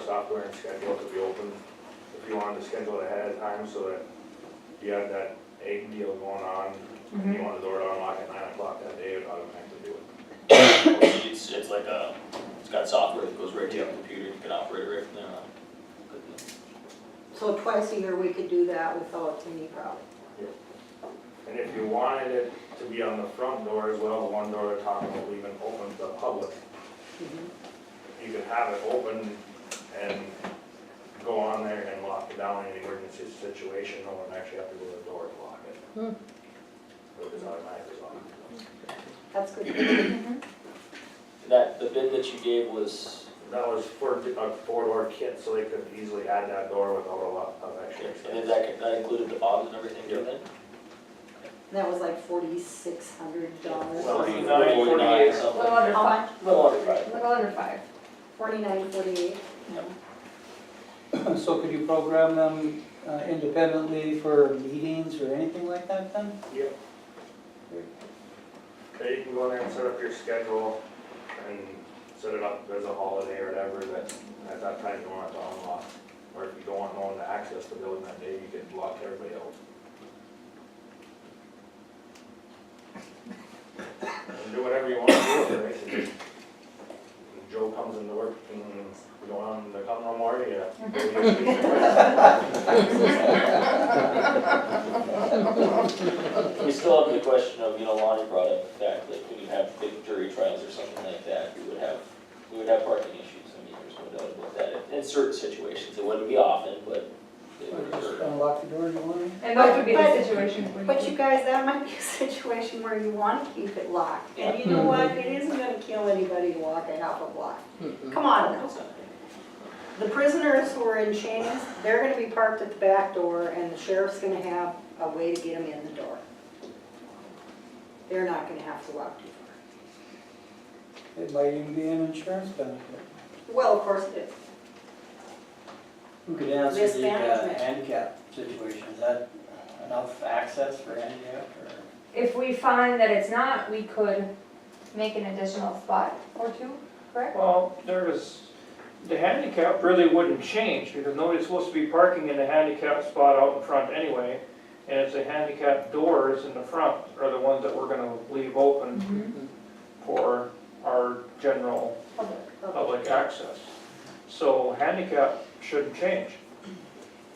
software and schedule it to be open. If you wanted to schedule it ahead of time so that you had that egg deal going on, and you wanted the door to unlock at nine o'clock that day, it would automatically do it. It's, it's like a, it's got software that goes right to your computer, you can operate it right from there on. Good deal. So twice a year, we could do that without any problem. And if you wanted it to be on the front door as well, the one door they're talking about leaving open to the public, you could have it open and go on there and lock it down in an emergency situation, no one actually have to go to the door to lock it. Hmm. It was automatically locked. That's good. That, the bid that you gave was, That was for a four-door kit, so they could easily add that door without a lot of extra and then expense. that, that included the bobs and everything, didn't it? That was like forty-six hundred dollars. Well, Forty-nine, Forty-nine, forty-eight. something. Little under How five, much? Little under five. little under five. Forty-nine, forty-eight? So could you program them uh, independently for meetings or anything like that then? Yep. Yeah, you can go in there and set up your schedule and set it up as a holiday or whatever that, at that time you want it to unlock. Or if you don't want no one to access the building that day, you could block everybody else. And do whatever you want to do, with it, basically. If Joe comes into work and you don't want him to come no more, yeah. We still have the question of, you know, Lonnie brought up the fact that when you have big jury trials or something like that, we would have, we would have parking issues, I mean, there's no doubt about that. In certain situations, it wouldn't be often, but it Or would just occur. unlock the door, you want? And those would be But- the situations when you. But you guys, that might be a situation where you wanna keep it locked, and you know what, it isn't gonna kill anybody to walk a half a block. Come on now, the prisoners who are in chains, they're gonna be parked at the back door, and the sheriff's gonna have a way to get them in the door. They're not gonna have to walk too far. It might even be an insurance benefit. Well, of course it is. Who could answer the uh, Mismanagement. handicap situation? Is that enough access for handicap or? If we find that it's not, we could make an additional spot or two, correct? Well, there was, the handicap really wouldn't change, because nobody's supposed to be parking in a handicap spot out in front anyway. And it's the handicap doors in the front are the ones that we're gonna leave open Mm-hmm. Mhm. for our general Public. public access. So handicap shouldn't change.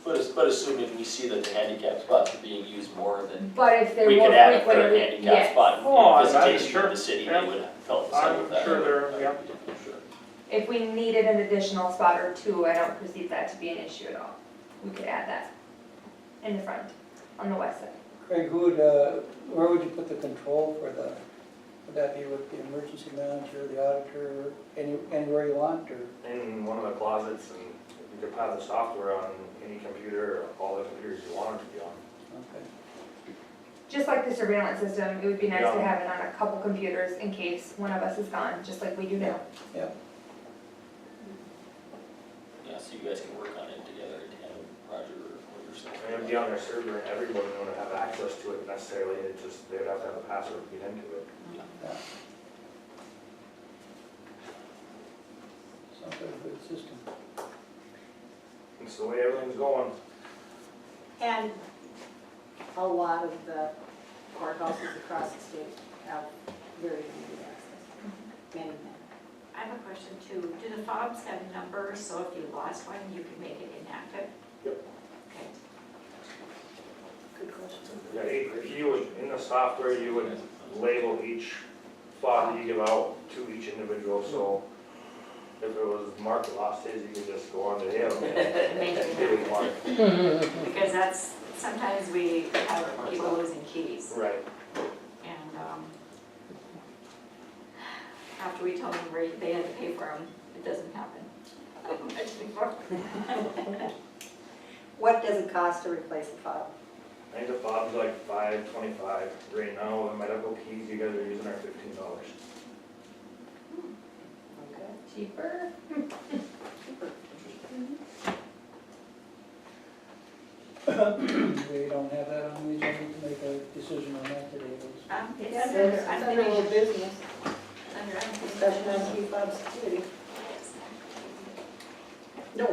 But, as- but assuming we see that the handicap spots are being used more than, But if they're we more could add a frequent, third it- handicap yes. Oh, spot I'm- in I'm visitation sure. of the city, Yeah. we would help us out with I'm that. sure there- yeah. Sure. If we needed an additional spot or two, I don't perceive that to be an issue at all. We could add that in the front, on the west side. Craig, who would, uh, where would you put the control for the, would that be with the emergency manager, the auditor, any, anywhere you want or? in one of the closets and you could have the software on any computer, or all the computers you wanted to be on. okay. Just like the surveillance system, it would be nice to Yeah. have it on a couple computers in case one of us is gone, just like we do now. Yeah, so you guys can work on it together, and have Roger or yourself. And it'd be on their server and everyone would have access to it necessarily, it just, they'd have to have a password to get into it. Sounds like a good system. It's the way everything's going. And a lot of the courthouses across the state have very limited access, many, many. I have a question too. Do the fobs have numbers, so if you lost one, you can make it inactive? Yep. Okay. Good question. Yeah, you- You would, in the software, you would label each fob that you give out to each individual, so if it was marked lost his, you could just go on to him and Make it give him one. inactive, Because that's, sometimes we have people losing keys Right. and, um, after we tell them where they had to pay for them, it doesn't happen. Um, Much before. What does it cost to replace a file? I think the fob's like five twenty-five right now, the medical keys you guys are using are fifteen dollars. Cheaper? We don't have that on the agenda to make a decision on that today, Liz. Um, it's Yes. under, I'm Under old thinking, business, under, I'm discussion on key fob security.